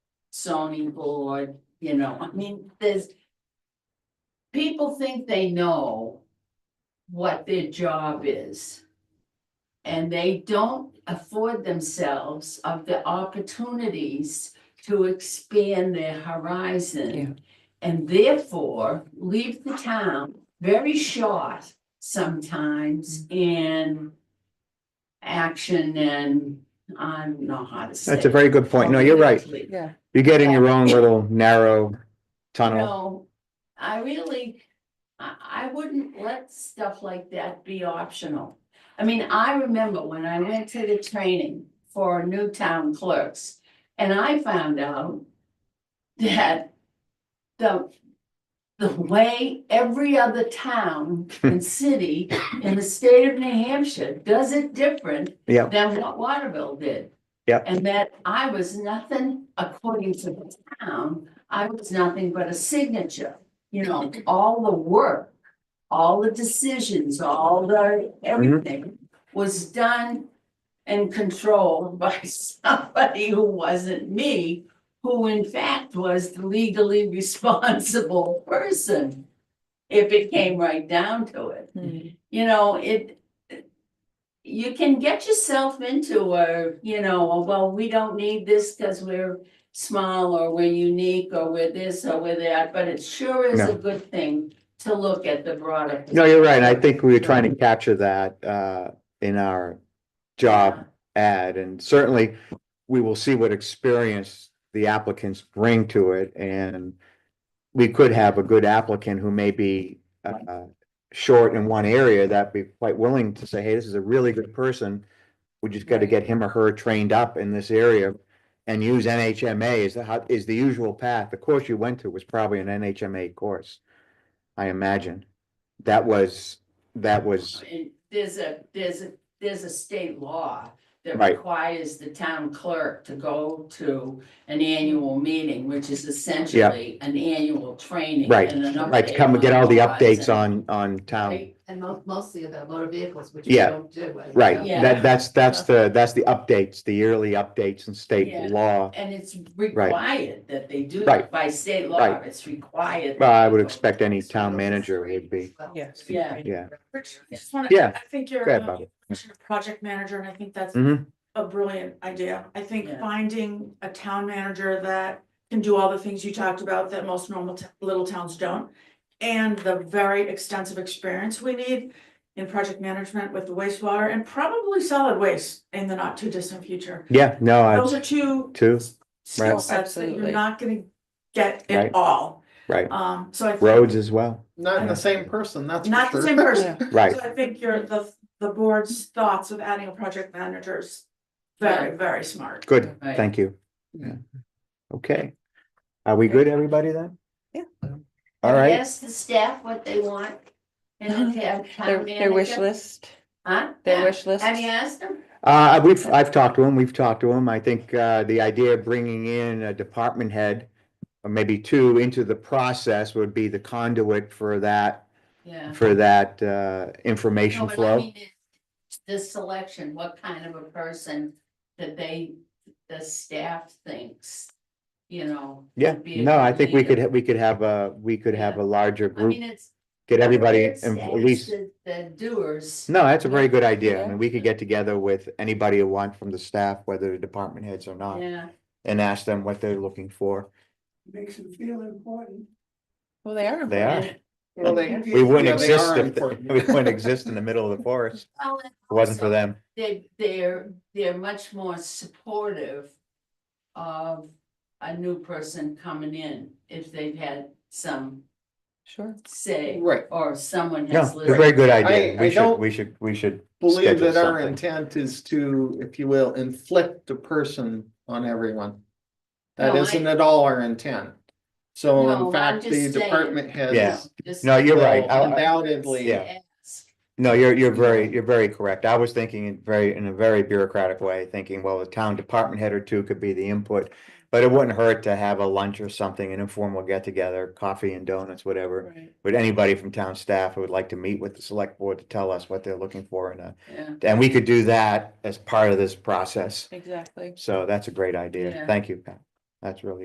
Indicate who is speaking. Speaker 1: zoning board, you know, I mean, there's. People think they know what their job is. And they don't afford themselves of the opportunities to expand their horizon. And therefore leave the town very short sometimes in action and I don't know how to say.
Speaker 2: That's a very good point. No, you're right.
Speaker 1: politically.
Speaker 3: Yeah.
Speaker 2: You get in your own little narrow tunnel.
Speaker 1: No, I really, I, I wouldn't let stuff like that be optional. I mean, I remember when I went to the training for new town clerks, and I found out that the, the way every other town and city in the state of New Hampshire does it different
Speaker 2: Yep,
Speaker 1: than what Waterville did.
Speaker 2: Yep.
Speaker 1: And that I was nothing, according to the town, I was nothing but a signature, you know, all the work. All the decisions, all the, everything was done and controlled by somebody who wasn't me. Who in fact was the legally responsible person, if it came right down to it you know, it. You can get yourself into a, you know, a, well, we don't need this because we're small or we're unique or we're this or we're that, but it sure is a
Speaker 2: No.
Speaker 1: good thing to look at the broader.
Speaker 2: no, you're right. I think we were trying to capture that uh in our job ad and certainly we will see what experience the applicants bring to it and we could have a good applicant who may be uh short in one area that be quite willing to say, hey, this is a really good person. We just got to
Speaker 3: Right.
Speaker 2: get him or her trained up in this area and use NHMA is the how- is the usual path. The course you went to was probably an NHMA course. I imagine. That was, that was,
Speaker 1: And there's a, there's a, there's a state law that
Speaker 2: Right.
Speaker 1: requires the town clerk to go to an annual meeting, which is essentially an annual training.
Speaker 2: Right,
Speaker 1: and an
Speaker 2: right, to
Speaker 1: update
Speaker 2: come and get all the updates
Speaker 1: horizon.
Speaker 2: on on town.
Speaker 1: Right?
Speaker 3: And mo- mostly about motor vehicles, which
Speaker 2: we Yeah.
Speaker 3: don't do.
Speaker 2: Right,
Speaker 1: Yeah.
Speaker 2: that, that's, that's the, that's the updates, the yearly updates in
Speaker 1: Yeah.
Speaker 2: state law.
Speaker 1: And it's required that they do
Speaker 2: Right.
Speaker 1: it by state law,
Speaker 2: Right.
Speaker 1: it's required.
Speaker 2: Well, I
Speaker 1: that
Speaker 2: would
Speaker 1: they go.
Speaker 2: expect any town manager would be,
Speaker 4: Yes.
Speaker 1: Yeah.
Speaker 2: yeah.
Speaker 4: Rich, I just wanna,
Speaker 2: Yeah.
Speaker 4: I think you're,
Speaker 2: Go ahead,
Speaker 4: um,
Speaker 2: Bobby.
Speaker 4: you mentioned a project manager, and I think that's
Speaker 2: Mhm.
Speaker 4: a brilliant idea. I think
Speaker 1: Yeah.
Speaker 4: finding a town manager that can do all the things you talked about that most normal t- little towns don't. And the very extensive experience we need in project management with wastewater and probably solid waste in the not too distant future.
Speaker 2: Yeah, no,
Speaker 4: Those
Speaker 2: I,
Speaker 4: are two
Speaker 2: too,
Speaker 4: skill
Speaker 2: Right.
Speaker 4: sets that you're
Speaker 3: Absolutely.
Speaker 4: not gonna get at
Speaker 2: Right.
Speaker 4: all.
Speaker 2: right.
Speaker 4: Um, so I. think-
Speaker 2: Roads as well,
Speaker 5: Not in
Speaker 2: Yeah.
Speaker 5: the same person, that's for
Speaker 4: Not the
Speaker 5: sure.
Speaker 4: same person.
Speaker 2: right.
Speaker 4: So I think your, the, the board's thoughts of adding a project manager is very, very smart.
Speaker 2: Good,
Speaker 1: Right.
Speaker 2: thank you.
Speaker 5: Yeah.
Speaker 2: Okay. Are we good, everybody then?
Speaker 3: Yeah.
Speaker 2: All right,
Speaker 1: Ask the staff what they want. And the town
Speaker 3: Their,
Speaker 1: town
Speaker 3: their wish
Speaker 1: manager.
Speaker 3: list,
Speaker 1: Huh?
Speaker 3: their
Speaker 1: Yeah.
Speaker 3: wish list.
Speaker 1: Have you asked them?
Speaker 2: uh, we've, I've talked to him, we've talked to him. I think, uh, the idea of bringing in a department head or maybe two into the process would be the conduit for that,
Speaker 1: Yeah.
Speaker 2: for that, uh,
Speaker 1: No,
Speaker 2: information
Speaker 1: but I
Speaker 2: flow.
Speaker 1: mean, it's The selection, what kind of a person that they, the staff thinks, you know.
Speaker 2: Yeah,
Speaker 1: would be a
Speaker 2: no, I
Speaker 1: good
Speaker 2: think we
Speaker 1: leader.
Speaker 2: could, ha- we could have a, we could have
Speaker 1: Yeah.
Speaker 2: a larger
Speaker 1: I mean,
Speaker 2: group,
Speaker 1: it's.
Speaker 2: get everybody,
Speaker 1: it's-
Speaker 2: in- at
Speaker 1: it's
Speaker 2: least,
Speaker 1: The the doers.
Speaker 2: no, that's a very good idea. I
Speaker 3: Yeah.
Speaker 2: mean, we could get together with anybody who wants from the staff, whether they're department heads or not,
Speaker 1: Yeah,
Speaker 2: and ask them what they're looking for.
Speaker 6: makes them feel important.
Speaker 3: Well, they are.
Speaker 2: They are,
Speaker 5: Well, they-
Speaker 2: we wouldn't
Speaker 5: yeah, they
Speaker 2: exist
Speaker 5: are
Speaker 2: if, th-
Speaker 5: important.
Speaker 2: we wouldn't exist in the middle of the forest,
Speaker 1: Well, and
Speaker 2: if it wasn't for
Speaker 1: also-
Speaker 2: them.
Speaker 1: they, they're, they're much more supportive of a new person coming in if they've had some
Speaker 3: Sure.
Speaker 1: say
Speaker 5: Right,
Speaker 1: or someone
Speaker 2: No,
Speaker 1: has
Speaker 2: it's a very
Speaker 1: listened.
Speaker 2: good idea.
Speaker 5: I- I
Speaker 2: We should,
Speaker 5: don't
Speaker 2: we should, we should.
Speaker 5: believe
Speaker 2: schedule
Speaker 5: that our
Speaker 2: something.
Speaker 5: intent is to, if you will, inflict a person on everyone. That
Speaker 1: No, I-
Speaker 5: isn't at all our intent. So
Speaker 1: No, I'm
Speaker 5: in fact,
Speaker 1: just saying.
Speaker 5: the department
Speaker 2: Yeah.
Speaker 5: heads
Speaker 1: Just
Speaker 2: No, you're right.
Speaker 5: will
Speaker 2: I- I-
Speaker 5: undoubtedly.
Speaker 2: Yeah.
Speaker 1: ask.
Speaker 2: No, you're, you're very, you're very correct. I was thinking in very, in a very bureaucratic way, thinking, well, a town department head or two could be the input. But it wouldn't hurt to have a lunch or something, an informal get together, coffee and donuts, whatever.
Speaker 3: Right.
Speaker 2: With anybody from town staff who would like to meet with the select board to tell us what they're looking for and, uh,
Speaker 1: Yeah,
Speaker 2: and we could do that as part of this process.
Speaker 3: Exactly.
Speaker 2: So that's a great idea.
Speaker 1: Yeah.
Speaker 2: Thank you, Pat. That's really